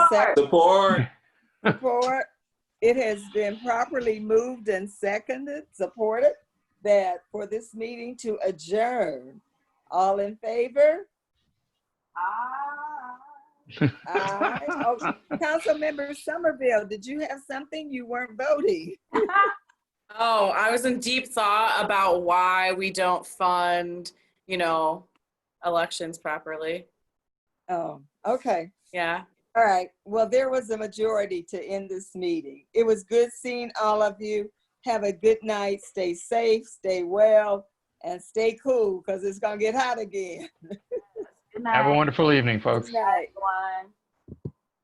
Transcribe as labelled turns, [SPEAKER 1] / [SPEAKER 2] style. [SPEAKER 1] Support.
[SPEAKER 2] Support.
[SPEAKER 1] Support. It has been properly moved and seconded, supported, that for this meeting to adjourn. All in favor? Aye. Oh, Councilmember Somerville, did you have something? You weren't voting.
[SPEAKER 3] Oh, I was in deep thought about why we don't fund, you know, elections properly.
[SPEAKER 1] Oh, okay.
[SPEAKER 3] Yeah.
[SPEAKER 1] All right. Well, there was a majority to end this meeting. It was good seeing all of you. Have a good night. Stay safe, stay well, and stay cool because it's going to get hot again.
[SPEAKER 4] Good
[SPEAKER 5] Have a
[SPEAKER 4] night,
[SPEAKER 5] wonderful evening, folks.
[SPEAKER 1] Good night.
[SPEAKER 4] everyone.